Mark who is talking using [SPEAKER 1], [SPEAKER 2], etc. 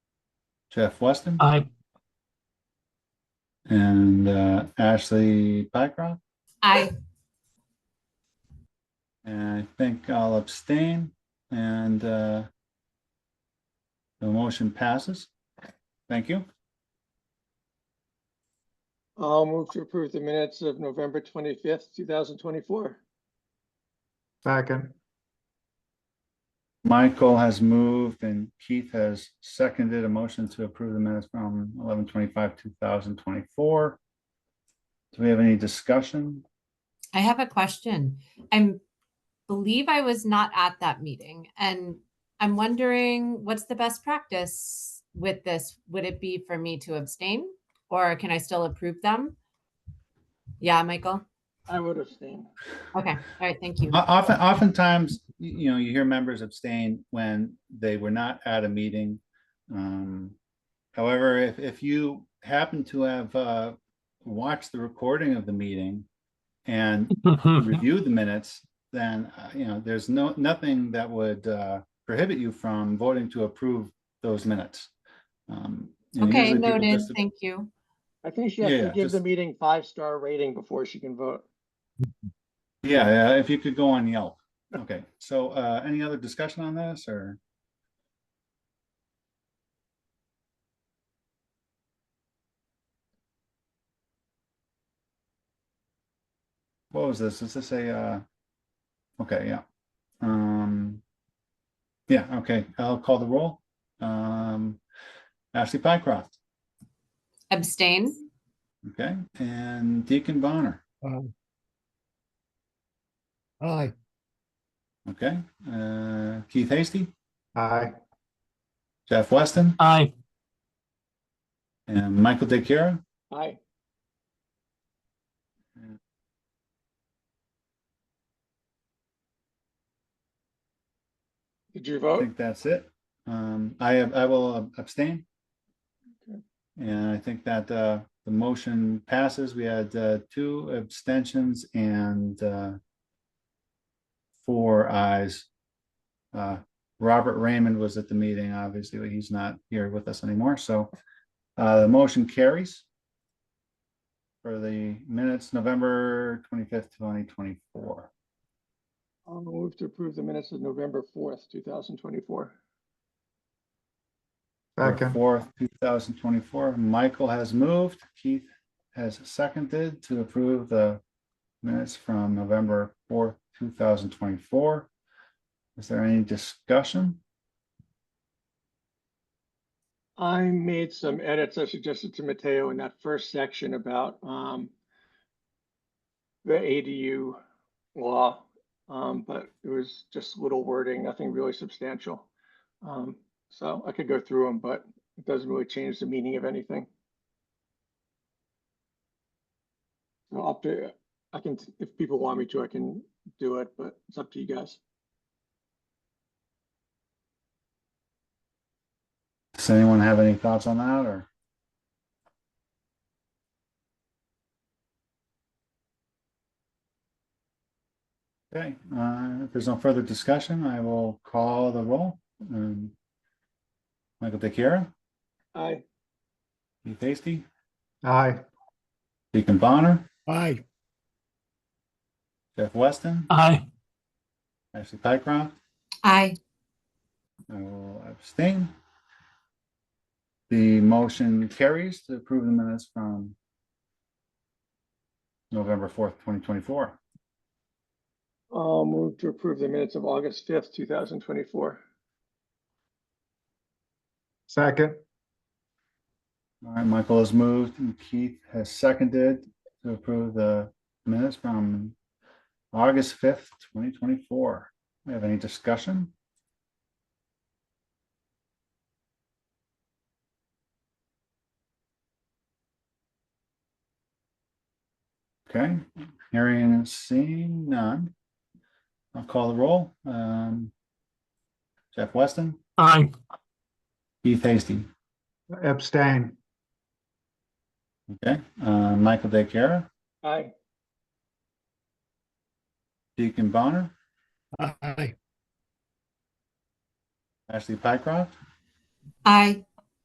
[SPEAKER 1] Jeff Weston,
[SPEAKER 2] Aye.
[SPEAKER 1] and uh, Ashley Pycroft.
[SPEAKER 3] Aye.
[SPEAKER 1] And I think I'll abstain and uh, the motion passes. Thank you.
[SPEAKER 4] I'll move to approve the minutes of November twenty-fifth, two thousand twenty-four.
[SPEAKER 2] Second.
[SPEAKER 1] Michael has moved and Keith has seconded a motion to approve the minutes from eleven twenty-five, two thousand twenty-four. Do we have any discussion?
[SPEAKER 3] I have a question. I believe I was not at that meeting and I'm wondering what's the best practice with this? Would it be for me to abstain or can I still approve them? Yeah, Michael?
[SPEAKER 4] I would abstain.
[SPEAKER 3] Okay, all right, thank you.
[SPEAKER 1] O- Often, oftentimes, y- you know, you hear members abstain when they were not at a meeting. Um, However, if, if you happen to have uh, watched the recording of the meeting and review the minutes, then, uh, you know, there's no, nothing that would uh, prohibit you from voting to approve those minutes. Um, and
[SPEAKER 3] Okay,
[SPEAKER 1] usually people
[SPEAKER 3] noted.
[SPEAKER 1] just-
[SPEAKER 3] Thank you.
[SPEAKER 4] I think she has to
[SPEAKER 1] Yeah,
[SPEAKER 4] give the
[SPEAKER 1] just-
[SPEAKER 4] meeting five-star rating before she can vote.
[SPEAKER 1] Yeah, yeah, if you could go on Yelp. Okay, so uh, any other discussion on this or? What was this? Is this a, uh, okay, yeah. Um, yeah, okay, I'll call the roll. Um, Ashley Pycroft,
[SPEAKER 3] Abstain?
[SPEAKER 1] okay, and Deacon Bonner,
[SPEAKER 2] Aye.
[SPEAKER 1] okay, uh, Keith Hasty,
[SPEAKER 2] Aye.
[SPEAKER 1] Jeff Weston,
[SPEAKER 2] Aye.
[SPEAKER 1] and Michael DeCara.
[SPEAKER 4] Aye. Did you
[SPEAKER 1] I
[SPEAKER 4] vote?
[SPEAKER 1] think that's it. Um, I ab- I will abstain.
[SPEAKER 4] Okay.
[SPEAKER 1] And I think that, uh, the motion passes. We had, uh, two abstentions and, uh, four ayes. Uh, Robert Raymond was at the meeting, obviously, but he's not here with us anymore, so, uh, the motion carries for the minutes, November twenty-fifth, twenty twenty-four.
[SPEAKER 4] I'll move to approve the minutes of November fourth, two thousand twenty-four.
[SPEAKER 2] Second.
[SPEAKER 1] Fourth, two thousand twenty-four. Michael has moved. Keith has seconded to approve the minutes from November fourth, two thousand twenty-four. Is there any discussion?
[SPEAKER 4] I made some edits I suggested to Mateo in that first section about um the ADU law, um, but it was just little wording, nothing really substantial. Um, so I could go through them, but it doesn't really change the meaning of anything. So up to, I can, if people want me to, I can do it, but it's up to you guys.
[SPEAKER 1] Does anyone have any thoughts on that or? Okay, uh, if there's no further discussion, I will call the roll. Um, Michael DeCara,
[SPEAKER 4] Aye.
[SPEAKER 1] Keith Hasty,
[SPEAKER 2] Aye.
[SPEAKER 1] Deacon Bonner.
[SPEAKER 2] Aye.
[SPEAKER 1] Jeff Weston,
[SPEAKER 2] Aye.
[SPEAKER 1] Ashley Pycroft,
[SPEAKER 3] Aye.
[SPEAKER 1] I will abstain. The motion carries to approve the minutes from November fourth, twenty twenty-four.
[SPEAKER 4] I'll move to approve the minutes of August fifth, two thousand twenty-four.
[SPEAKER 2] Second.
[SPEAKER 1] All right, Michael has moved and Keith has seconded to approve the minutes from August fifth, twenty twenty-four. We have any discussion? Okay, hearing and seeing none. I'll call the roll. Um, Jeff Weston,
[SPEAKER 2] Aye.
[SPEAKER 1] Keith Hasty,
[SPEAKER 2] Abstain.
[SPEAKER 1] okay, uh, Michael DeCara.
[SPEAKER 4] Aye.
[SPEAKER 1] Deacon Bonner,
[SPEAKER 2] Aye.
[SPEAKER 1] Ashley Pycroft,
[SPEAKER 3] Aye.